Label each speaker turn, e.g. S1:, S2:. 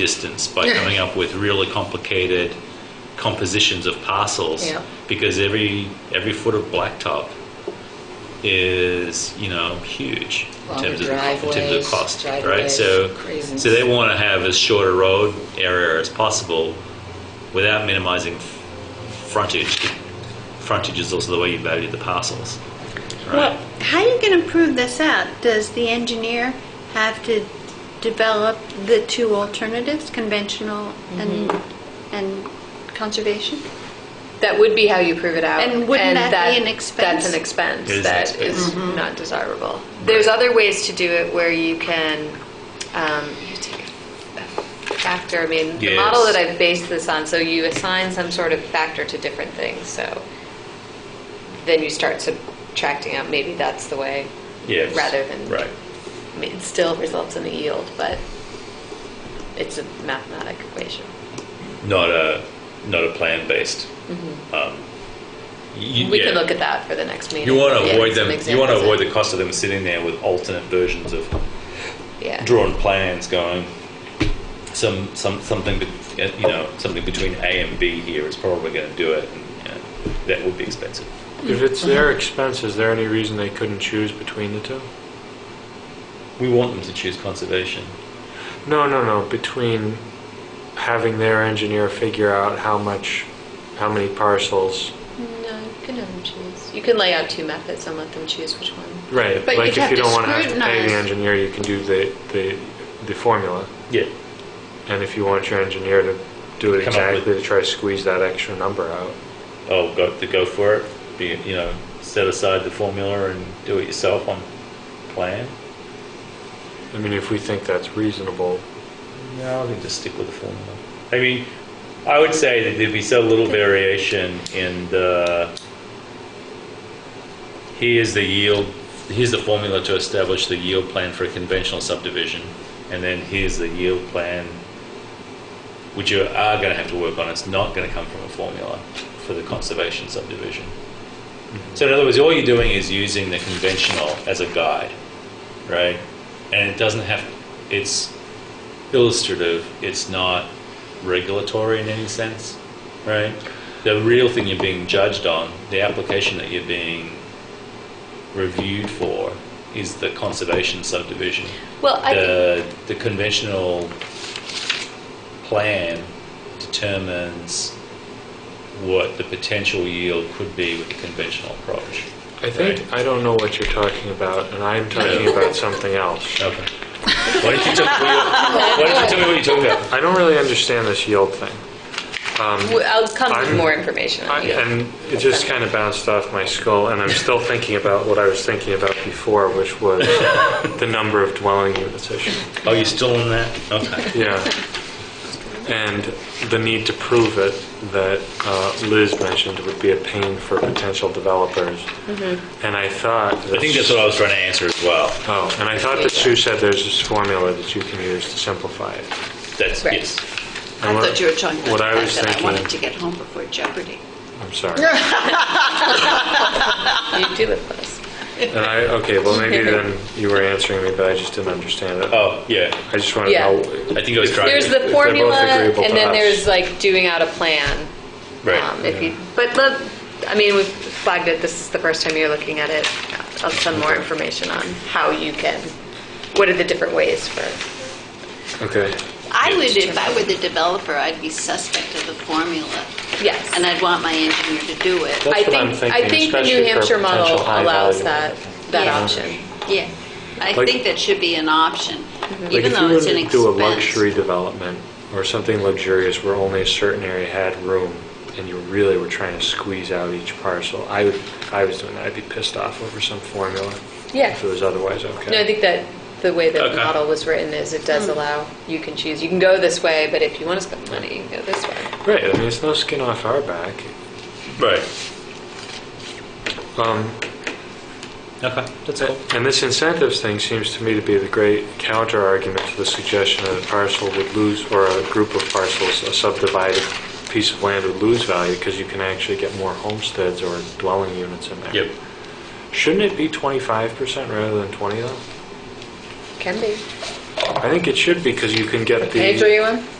S1: distance by
S2: Yeah.
S1: coming up with really complicated compositions of parcels
S2: Yeah.
S1: because every every foot of blacktop is you know huge in
S2: Longer
S1: terms of the, co- in terms of
S2: driveways,
S1: cost right
S2: driveways,
S1: so
S2: craziness.
S1: so they want to have as short a road area as possible without minimizing f- frontage frontage is also the way you value the parcels right
S3: Well, how are you going to prove this out? Does the engineer have to develop the two alternatives, conventional and, and conservation?
S4: That would be how you prove it out.
S3: And wouldn't that be an expense?
S4: That's an expense
S1: It is an
S4: that
S1: expense.
S4: is not desirable. There's other ways to do it where you can um, you take a factor. I mean, the
S1: Yes.
S4: model that I've based this on, so you assign some sort of factor to different things. So then you start subtracting out. Maybe that's the way.
S1: Yes.
S4: Rather than
S1: Right.
S4: I mean, it still results in a yield, but it's a mathematic equation.
S1: not a not a plan based um, you,
S4: We
S1: yeah.
S4: can look at that for the next meeting.
S1: You want to
S4: Yeah,
S1: avoid
S4: some
S1: them. You want to
S4: examples.
S1: avoid the cost of them sitting there with alternate versions of
S4: yeah.
S1: drawn plans going. Some some something be- you know something between A and B here is probably going to do it, and you know, that would be expensive.
S5: If it's their expense, is there any reason they couldn't choose between the two?
S1: We want them to choose conservation.
S5: No, no, no, between having their engineer figure out how much, how many parcels.
S4: No, you can have them choose. You can lay out two methods and let them choose which one.
S5: Right,
S3: But
S5: like
S3: you'd
S5: if
S3: have
S5: you
S3: to
S5: don't want to have to pay
S3: scrutinize.
S5: the engineer, you can do the, the, the formula.
S1: Yeah,
S5: And if you want your engineer to do it
S1: Come up with-
S5: exactly, to try to squeeze that extra number out.
S1: oh, got to go for it. Be, you know, set aside the formula and do it yourself on plan.
S5: I mean, if we think that's reasonable,
S1: No, I think just stick with the formula. I mean, I would say that there'd be so little variation in the, here's the yield, here's the formula to establish the yield plan for a conventional subdivision, and then here's the yield plan, which you are going to have to work on, it's not going to come from a formula for the conservation subdivision. So in other words, all you're doing is using the conventional as a guide, right? And it doesn't have, it's, illustrative. It's not regulatory in any sense, right? The real thing you're being judged on, the application that you're being reviewed for, is the conservation subdivision.
S4: Well, I
S1: the the conventional plan determines what the potential yield could be with the conventional approach.
S5: I think, I don't know what you're talking about, and I'm talking about something else.
S1: Okay. Why don't you tell me what you're, why don't you tell me what you're talking about?
S5: I don't really understand this yield thing.
S4: Well, I'll come with
S5: I'm-
S4: more information
S5: I-
S4: on you.
S5: And it just kind of bounced off my skull, and I'm still thinking about what I was thinking about before, which was the number of dwelling units issue.
S1: Oh, you're still on that? Okay.
S5: Yeah. And the need to prove it that uh, Liz mentioned would be a pain for potential developers.
S3: Mm-hmm.
S5: And I thought.
S1: I think that's what I was trying to answer as well.
S5: Oh, and I thought that Sue said there's this formula that you can use to simplify it.
S1: That's,
S4: Right.
S1: yes.
S3: I thought you were talking about
S5: What
S3: the
S5: I
S3: fact
S5: was
S3: that I
S5: thinking-
S3: wanted to get home before Jeopardy.
S5: I'm sorry.
S4: you do live with us.
S5: And I, okay, well, maybe then you were answering me, but I just didn't understand it.
S1: Oh, yeah.
S5: I just want to
S4: Yeah.
S5: know.
S1: I think I was trying.
S4: There's
S1: to-
S5: If
S4: the
S5: they're both
S4: formula,
S5: agreeable to
S4: and then
S5: us.
S4: there's like doing out a plan.
S1: Right.
S4: Um, if you, but the, I mean, we've flagged it. This is the first time you're looking at it. I'll send more information on how you can. What are the different ways for?
S5: Okay.
S3: I would, if I were the developer, I'd be suspect of the formula,
S4: Yes.
S3: and I'd want my engineer to do it.
S5: That's
S4: I
S5: what I'm
S4: think I
S5: thinking,
S4: think the
S5: especially
S4: New
S5: for
S4: Hampshire model
S5: potential high
S4: allows
S5: value.
S4: that that
S3: Yeah.
S4: option.
S3: Yeah, I
S5: Like-
S3: think that should be an option,
S5: Like
S3: even
S5: if you
S3: though
S5: were
S3: it's an
S5: to
S3: expense.
S5: do a luxury development or something luxurious where only a certain area had room and you really were trying to squeeze out each parcel, I would, if I was doing that, I'd be pissed off over some formula.
S4: Yeah.
S5: If it was otherwise okay.
S4: No, I think that the way that the
S1: Okay.
S4: model was written is it does allow, you can choose, you can go this way, but if you want to spend money, you can go this way.
S5: Right, I mean, it's no skin off our back.
S1: Right.
S5: Um,
S1: Okay. That's cool.
S5: And this incentives thing seems to me to be the great counter argument to the suggestion that a parcel would lose, or a group of parcels, a subdivided piece of land would lose value because you can actually get more homesteads or dwelling units in there.
S1: Yep.
S5: Shouldn't it be 25% rather than 20 though?
S4: Can be.
S5: I think it should be, because you can get the...
S4: Page are you on?